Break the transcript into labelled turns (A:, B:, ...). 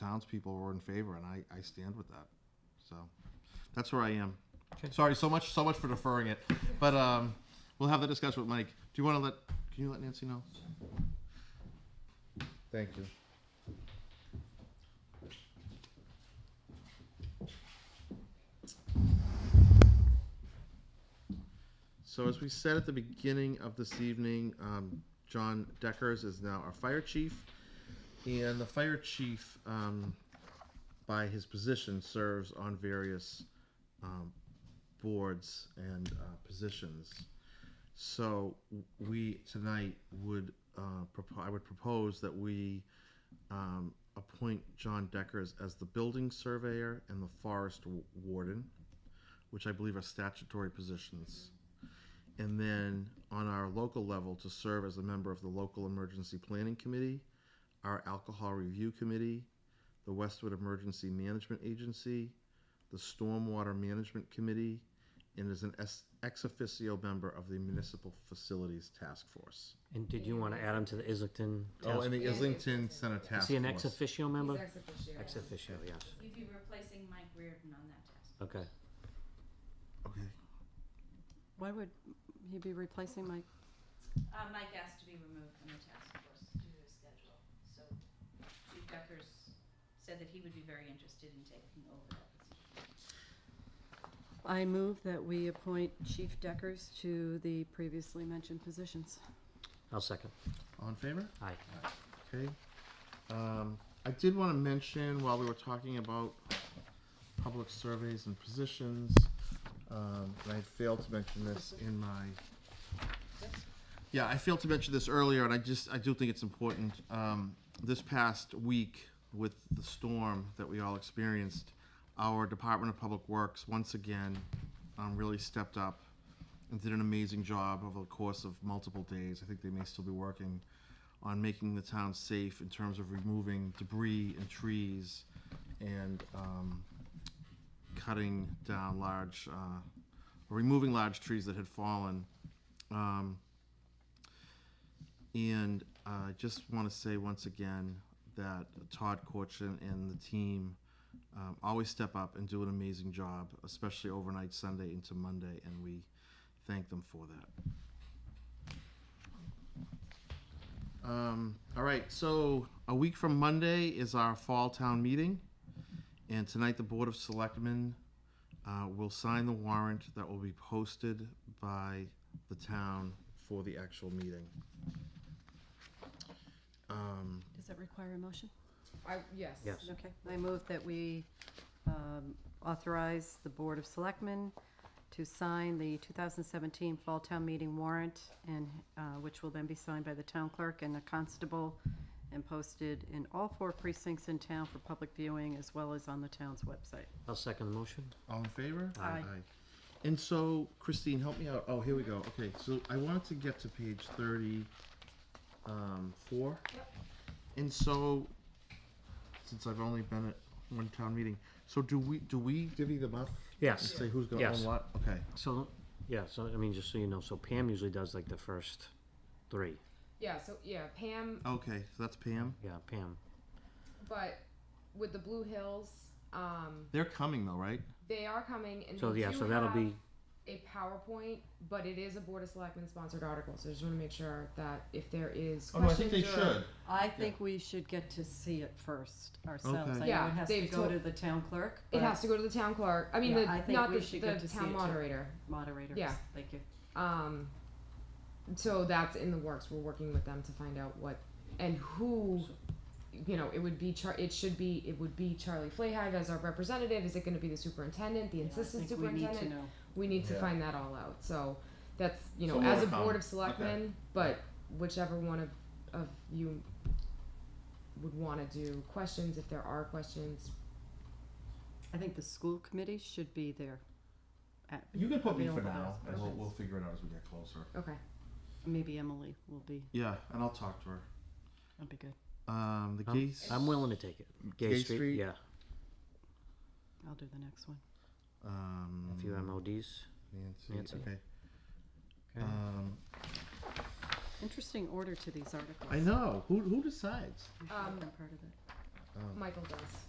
A: townspeople were in favor, and I, I stand with that. So that's where I am.
B: Okay.
A: Sorry, so much so much for deferring it, but um, we'll have that discussion with Mike. Do you want to let? Can you let Nancy know? Thank you. So as we said at the beginning of this evening, um, John Deckers is now our fire chief, and the fire chief, um, by his position, serves on various um, boards and uh, positions. So w- we tonight would uh, propo- I would propose that we um, appoint John Deckers as the building surveyor and the forest w- warden, which I believe are statutory positions and then on our local level to serve as a member of the local emergency planning committee, our alcohol review committee, the Westwood Emergency Management Agency, the Stormwater Management Committee, and is an ex ex officio member of the Municipal Facilities Task Force.
B: And did you want to add him to the Islington?
A: Oh,
B: task-
A: and the
C: Yeah,
A: Islington
C: it's-
A: Center
B: Is
A: Task
B: he an ex
A: Force.
B: officio member?
C: He's ex officio.
B: Ex officio, yes.
D: You'd be replacing Mike Reardon on that task.
B: Okay.
A: Okay.
E: Why would he be replacing Mike?
D: Uh, Mike asked to be removed from the task force due to his schedule, so Chief Deckers said that he would be very interested in taking over that position.
E: I move that we appoint Chief Deckers to the previously mentioned positions.
B: I'll second.
A: All in favor?
B: Aye.
A: Okay. Um, I did want to mention while we were talking about public surveys and positions, um, and I failed to mention this in my. Yeah, I failed to mention this earlier, and I just, I do think it's important. Um, this past week with the storm that we all experienced, our Department of Public Works once again, um, really stepped up and did an amazing job over the course of multiple days. I think they may still be working on making the town safe in terms of removing debris and trees and um, cutting down large, uh, removing large trees that had fallen. Um, and uh, I just want to say once again that Todd Corchin and the team um, always step up and do an amazing job, especially overnight Sunday into Monday, and we thank them for that. Um, all right, so a week from Monday is our fall town meeting, and tonight the Board of Selectmen uh, will sign the warrant that will be posted by the town for the actual meeting. Um,
E: Does that require a motion?
C: I, yes.
B: Yes.
E: Okay. I move that we um, authorize the Board of Selectmen to sign the 2017 Fall Town Meeting warrant, and, uh, which will then be signed by the town clerk and the constable and posted in all four precincts in town for public viewing, as well as on the town's website.
B: I'll second the motion.
A: All in favor?
E: Aye.
A: And so, Christine, help me out. Oh, here we go. Okay, so I wanted to get to page thirty-four. And so, since I've only been at one town meeting, so do we, do we divvy them up? And
B: Yes.
A: say who's gonna
B: Yes.
A: own what? Okay,
B: So, yeah, so, I mean, just so you know, so Pam usually does like the first three.
C: Yeah, so, yeah, Pam,
A: okay, so that's Pam.
B: Yeah, Pam.
C: but with the Blue Hills, um,
A: They're coming though, right?
C: they are coming and
B: So,
C: we
B: yeah,
C: do
B: so that'll
C: have
B: be,
C: a PowerPoint, but it is a Board of Selectmen sponsored article, so I just wanna make sure that if there is
A: Oh,
C: questions or-
E: uh, I think we should get to see it first ourselves.
A: Okay.
E: I know
C: Yeah,
E: it has to
C: they've
E: go
C: told-
E: to the town clerk,
C: It
E: but
C: has to go to the town clerk, I mean,
E: Yeah,
C: the,
E: I think
C: not
E: we
C: the,
E: should get
C: the
E: to see it
C: town
E: too.
C: moderator,
E: moderators,
C: Yeah.
E: thank you.
C: um, so that's in the works, we're working with them to find out what, and who, you know, it would be Char, it should be, it would be Charlie Flahag as our representative, is it gonna be the superintendent, the
E: Yeah, I
C: assistant
E: think we need to
C: superintendent?
E: know.
C: we need to
A: Yeah.
C: find that all out. So that's you know,
A: So more
C: as
A: to
C: a
A: come.
C: board of
A: Okay.
C: selectmen, but whichever one of of you would want to do questions, if there are questions,
E: I think the school committee should be there. at-
A: You can put
E: me for Available now, as and we'll- we'll
A: figure it out as we get closer.
C: okay.
E: Maybe Emily will be,
A: Yeah, and I'll talk to her.
E: that'd be good.
A: Um, the
B: I'm,
A: geese.
B: I'm willing to take it.
A: Gay
B: Gay
A: Street?
B: Street, yeah.
E: I'll do the next one.
A: Um.
B: A few MODs.
A: Nancy,
B: Nancy.
A: okay.
B: Okay.
A: Um,
E: Interesting order to these articles.
A: I know. Who, who decides?
E: I should
C: Um,
E: have been part of it.
A: Um,
C: Michael does.